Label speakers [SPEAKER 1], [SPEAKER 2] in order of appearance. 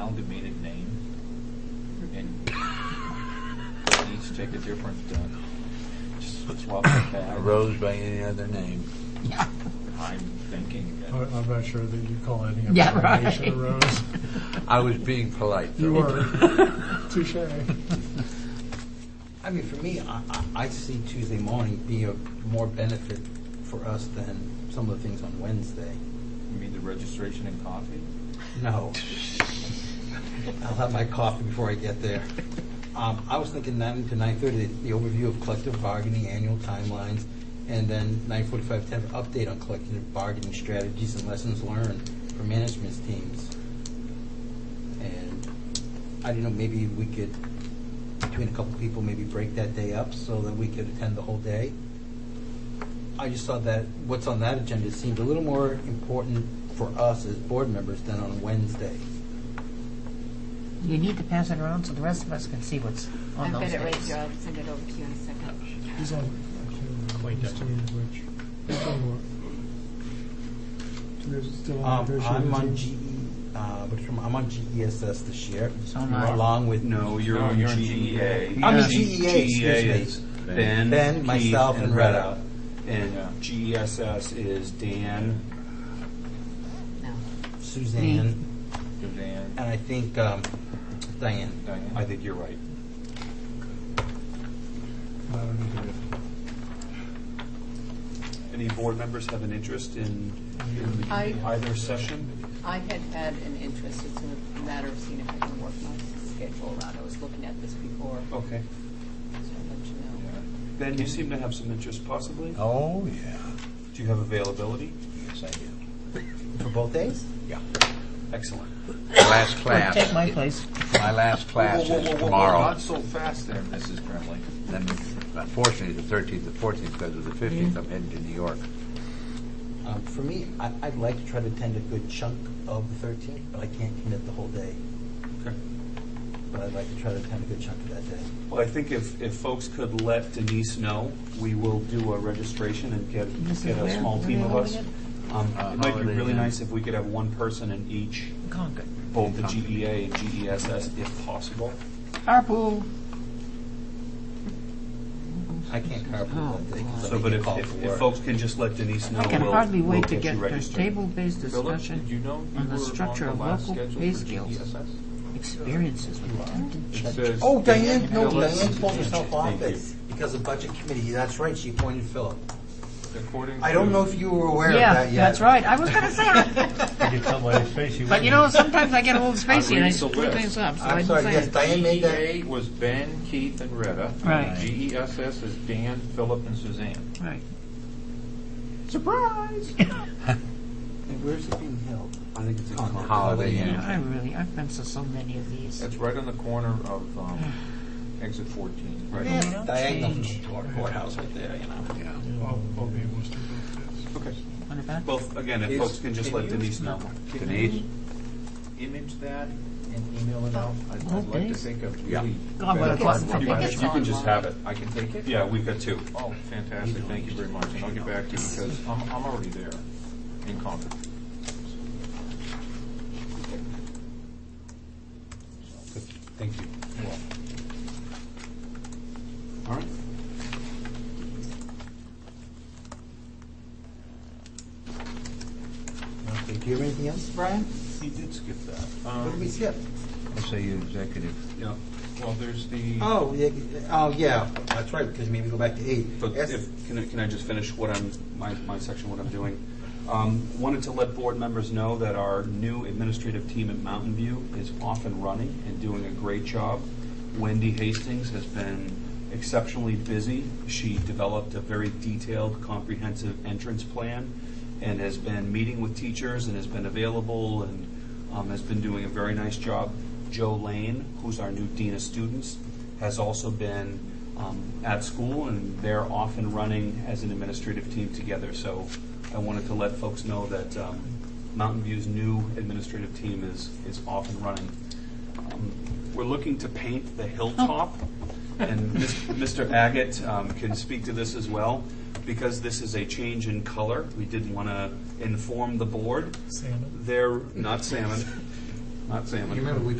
[SPEAKER 1] amalgamated name and each take a different, uh, just swap it back.
[SPEAKER 2] arose by any other name.
[SPEAKER 3] Yeah,
[SPEAKER 1] I'm thinking
[SPEAKER 4] I-
[SPEAKER 1] that
[SPEAKER 4] I'm not sure that you call any of
[SPEAKER 3] Yeah,
[SPEAKER 4] our
[SPEAKER 3] right.
[SPEAKER 4] nation a rose.
[SPEAKER 2] I was being polite.
[SPEAKER 4] You
[SPEAKER 2] though.
[SPEAKER 4] were. Touche.
[SPEAKER 5] I mean, for me, I, I, I see Tuesday morning be a more benefit for us than some of the things on Wednesday.
[SPEAKER 1] you mean the registration and coffee?
[SPEAKER 5] No. I'll have my coffee before I get there. Um, I was thinking nine to nine thirty, the overview of collective bargaining, annual timelines, and then nine forty-five to have an update on collective bargaining strategies and lessons learned for management teams. And I don't know, maybe we could, between a couple people, maybe break that day up so that we could attend the whole day. I just saw that what's on that agenda seemed a little more important for us as board members than on Wednesday.
[SPEAKER 3] you need to pass it around so the rest of us can see what's on
[SPEAKER 6] I've got
[SPEAKER 3] those
[SPEAKER 6] it right
[SPEAKER 3] days.
[SPEAKER 6] here. I'll send it over to you in a second.
[SPEAKER 4] He's on, I can't remember
[SPEAKER 7] Quite
[SPEAKER 4] who's doing which. He's doing what? There's still on
[SPEAKER 5] Um, I'm on
[SPEAKER 1] E,
[SPEAKER 4] negotiations.
[SPEAKER 5] GE, uh, what is it, I'm on GESS this year,
[SPEAKER 3] So am I.
[SPEAKER 5] along with
[SPEAKER 1] No, you're
[SPEAKER 7] No,
[SPEAKER 1] on E
[SPEAKER 7] you're on
[SPEAKER 1] GEA.
[SPEAKER 7] GEA.
[SPEAKER 5] I mean,
[SPEAKER 1] Yeah.
[SPEAKER 5] GEA, excuse
[SPEAKER 1] GEA
[SPEAKER 5] me.
[SPEAKER 1] is Ben,
[SPEAKER 5] Ben,
[SPEAKER 1] Keith,
[SPEAKER 5] myself, and
[SPEAKER 1] Red
[SPEAKER 5] Red
[SPEAKER 1] Out. And GESS is Dan,
[SPEAKER 6] No.
[SPEAKER 5] Suzanne, and
[SPEAKER 1] Suzanne,
[SPEAKER 5] I think um, Diane.
[SPEAKER 1] Diane. I think you're right.
[SPEAKER 4] I don't need to do it.
[SPEAKER 7] Any board members have an interest in in
[SPEAKER 6] I-
[SPEAKER 7] either session?
[SPEAKER 6] I had had an interest. It's a matter of seeing if I can work my schedule around. I was looking at this before, so
[SPEAKER 7] Okay.
[SPEAKER 6] I'll let you know.
[SPEAKER 7] Ben, you seem to have some interest possibly.
[SPEAKER 2] Oh, yeah.
[SPEAKER 7] Do you have availability?
[SPEAKER 2] Yes, I do.
[SPEAKER 5] For both days?
[SPEAKER 2] Yeah.
[SPEAKER 7] Excellent.
[SPEAKER 2] Last
[SPEAKER 3] Well,
[SPEAKER 2] class.
[SPEAKER 3] Take my place.
[SPEAKER 2] My last class
[SPEAKER 1] Whoa, whoa, whoa,
[SPEAKER 2] is
[SPEAKER 1] whoa, whoa,
[SPEAKER 2] tomorrow.
[SPEAKER 1] Not so fast there, Mrs. Gremley.
[SPEAKER 2] And unfortunately, the 13th and 14th, because of the 15th, I'm heading to New York.
[SPEAKER 5] Um, For me, I- I'd like to try to attend a good chunk of the 13th, but I can't commit the whole day.
[SPEAKER 7] Okay.
[SPEAKER 5] But I'd like to try to attend a good chunk of that day.
[SPEAKER 7] Well, I think if, if folks could let Denise know, we will do a registration and get,
[SPEAKER 3] This is
[SPEAKER 7] get a
[SPEAKER 3] where?
[SPEAKER 7] small
[SPEAKER 3] Where
[SPEAKER 7] team
[SPEAKER 3] they
[SPEAKER 7] of
[SPEAKER 3] are
[SPEAKER 7] us.
[SPEAKER 3] again?
[SPEAKER 7] Um,
[SPEAKER 2] Uh,
[SPEAKER 7] It might be
[SPEAKER 2] Holiday
[SPEAKER 7] really
[SPEAKER 2] Inn.
[SPEAKER 7] nice if we could have one person in each,
[SPEAKER 3] Concord.
[SPEAKER 7] both the GEA and GESS if possible.
[SPEAKER 3] Harpool.
[SPEAKER 5] I can't
[SPEAKER 1] Oh,
[SPEAKER 5] carpool that day because
[SPEAKER 7] So,
[SPEAKER 5] I'll
[SPEAKER 7] but
[SPEAKER 5] be
[SPEAKER 7] if,
[SPEAKER 5] called
[SPEAKER 7] if-
[SPEAKER 5] for
[SPEAKER 7] if
[SPEAKER 5] work.
[SPEAKER 7] folks can just let Denise know,
[SPEAKER 3] I can
[SPEAKER 7] we'll-
[SPEAKER 3] hardly
[SPEAKER 7] we'll
[SPEAKER 3] wait to
[SPEAKER 7] you
[SPEAKER 3] get the
[SPEAKER 7] registered.
[SPEAKER 3] table-based
[SPEAKER 1] Philip, did you
[SPEAKER 3] discussion
[SPEAKER 1] know you
[SPEAKER 3] on
[SPEAKER 1] were
[SPEAKER 3] the structure
[SPEAKER 1] on
[SPEAKER 3] of
[SPEAKER 1] the E last
[SPEAKER 3] local
[SPEAKER 1] schedule
[SPEAKER 3] pay
[SPEAKER 1] for
[SPEAKER 3] scales,
[SPEAKER 1] GESS?
[SPEAKER 3] experiences with attendant
[SPEAKER 1] It
[SPEAKER 3] check.
[SPEAKER 1] says-
[SPEAKER 5] Oh, Diane, no,
[SPEAKER 1] Philip,
[SPEAKER 5] Diane pulled herself off
[SPEAKER 1] Thank you.
[SPEAKER 5] it because of budget committee. That's right, she appointed Philip.
[SPEAKER 1] According
[SPEAKER 5] I don't
[SPEAKER 1] to-
[SPEAKER 5] know if you were aware of
[SPEAKER 3] Yeah,
[SPEAKER 5] that yet.
[SPEAKER 3] that's right. I was gonna say that.
[SPEAKER 4] You can tell by his face, he
[SPEAKER 3] But you know, sometimes I get a little spacey and
[SPEAKER 1] reading
[SPEAKER 3] I
[SPEAKER 1] the
[SPEAKER 3] screw
[SPEAKER 1] list.
[SPEAKER 3] things up, so I
[SPEAKER 5] I'm
[SPEAKER 3] didn't
[SPEAKER 5] sorry,
[SPEAKER 3] say
[SPEAKER 5] yes,
[SPEAKER 3] it.
[SPEAKER 5] Diane made that.
[SPEAKER 1] GEA was Ben, Keith, and Retta.
[SPEAKER 3] Right.
[SPEAKER 1] GESS is Dan, Philip, and Suzanne.
[SPEAKER 3] Right.
[SPEAKER 5] Surprise! And where's it being held? I think it's on
[SPEAKER 2] Holiday Inn.
[SPEAKER 3] I really, I've been to so many of these.
[SPEAKER 1] That's right on the corner of um, exit 14. Right.
[SPEAKER 3] They don't
[SPEAKER 5] Diagonal
[SPEAKER 3] change.
[SPEAKER 5] from our courthouse right there, you know.
[SPEAKER 2] Yeah.
[SPEAKER 4] I'll, I'll be able to do both days.
[SPEAKER 7] Okay.
[SPEAKER 3] What about?
[SPEAKER 7] Well, again, if
[SPEAKER 1] Is-
[SPEAKER 7] folks can just
[SPEAKER 1] can
[SPEAKER 7] let
[SPEAKER 1] you-
[SPEAKER 7] Denise know.
[SPEAKER 1] Can
[SPEAKER 2] Denise?
[SPEAKER 1] you image that and email it out? I'd
[SPEAKER 3] Well,
[SPEAKER 1] I'd like to
[SPEAKER 3] thanks.
[SPEAKER 1] think of
[SPEAKER 2] Yeah.
[SPEAKER 1] really...
[SPEAKER 3] God, what a
[SPEAKER 1] better-
[SPEAKER 3] fun- I
[SPEAKER 1] You
[SPEAKER 3] think
[SPEAKER 1] can-
[SPEAKER 6] it's
[SPEAKER 1] You can just
[SPEAKER 6] online.
[SPEAKER 1] have it. I can take it?
[SPEAKER 7] Yeah, we've got two.
[SPEAKER 1] Oh, fantastic. Thank you very much. And I'll get back to you because I'm I'm already there in Concord.
[SPEAKER 5] Thank you.
[SPEAKER 7] All right.
[SPEAKER 5] Okay, do you have anything else, Brian?
[SPEAKER 1] He did skip that.
[SPEAKER 5] What did we skip?
[SPEAKER 2] SAU executive.
[SPEAKER 1] Yeah. Well, there's the...
[SPEAKER 5] Oh, yeah, oh, yeah, that's right, because maybe go back to eight.
[SPEAKER 7] But
[SPEAKER 5] Yes.
[SPEAKER 7] if, can I, can I just finish what I'm, my, my section, what I'm doing? Um, wanted to let board members know that our new administrative team at Mountain View is off and running and doing a great job. Wendy Hastings has been exceptionally busy. She developed a very detailed, comprehensive entrance plan and has been meeting with teachers and has been available and um, has been doing a very nice job. Joe Lane, who's our new Dean of Students, has also been um, at school, and they're off and running as an administrative team together. So I wanted to let folks know that um, Mountain View's new administrative team is, is off and running. Um, We're looking to paint the hilltop, and Mis- Mr. Agate um, can speak to this as well. Because this is a change in color, we did want to inform the board
[SPEAKER 4] Salmon.
[SPEAKER 7] they're not salmon.
[SPEAKER 8] Not salmon.
[SPEAKER 7] You remember, we